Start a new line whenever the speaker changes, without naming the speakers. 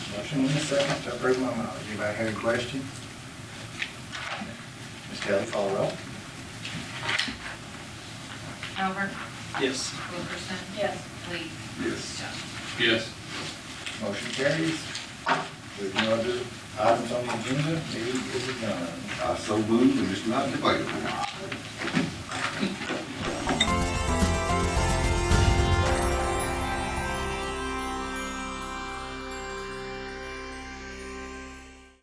Motion in a second to approve my mileage. Anybody have a question? Ms. Kelly, call roll.
Albert?
Yes.
Wilkerson?
Yes.
Lee?
Yes.
Johnson?
Yes.
Motion carries. There's no other items on the agenda. Meeting is adjourned.
I so move, and it's not debatable.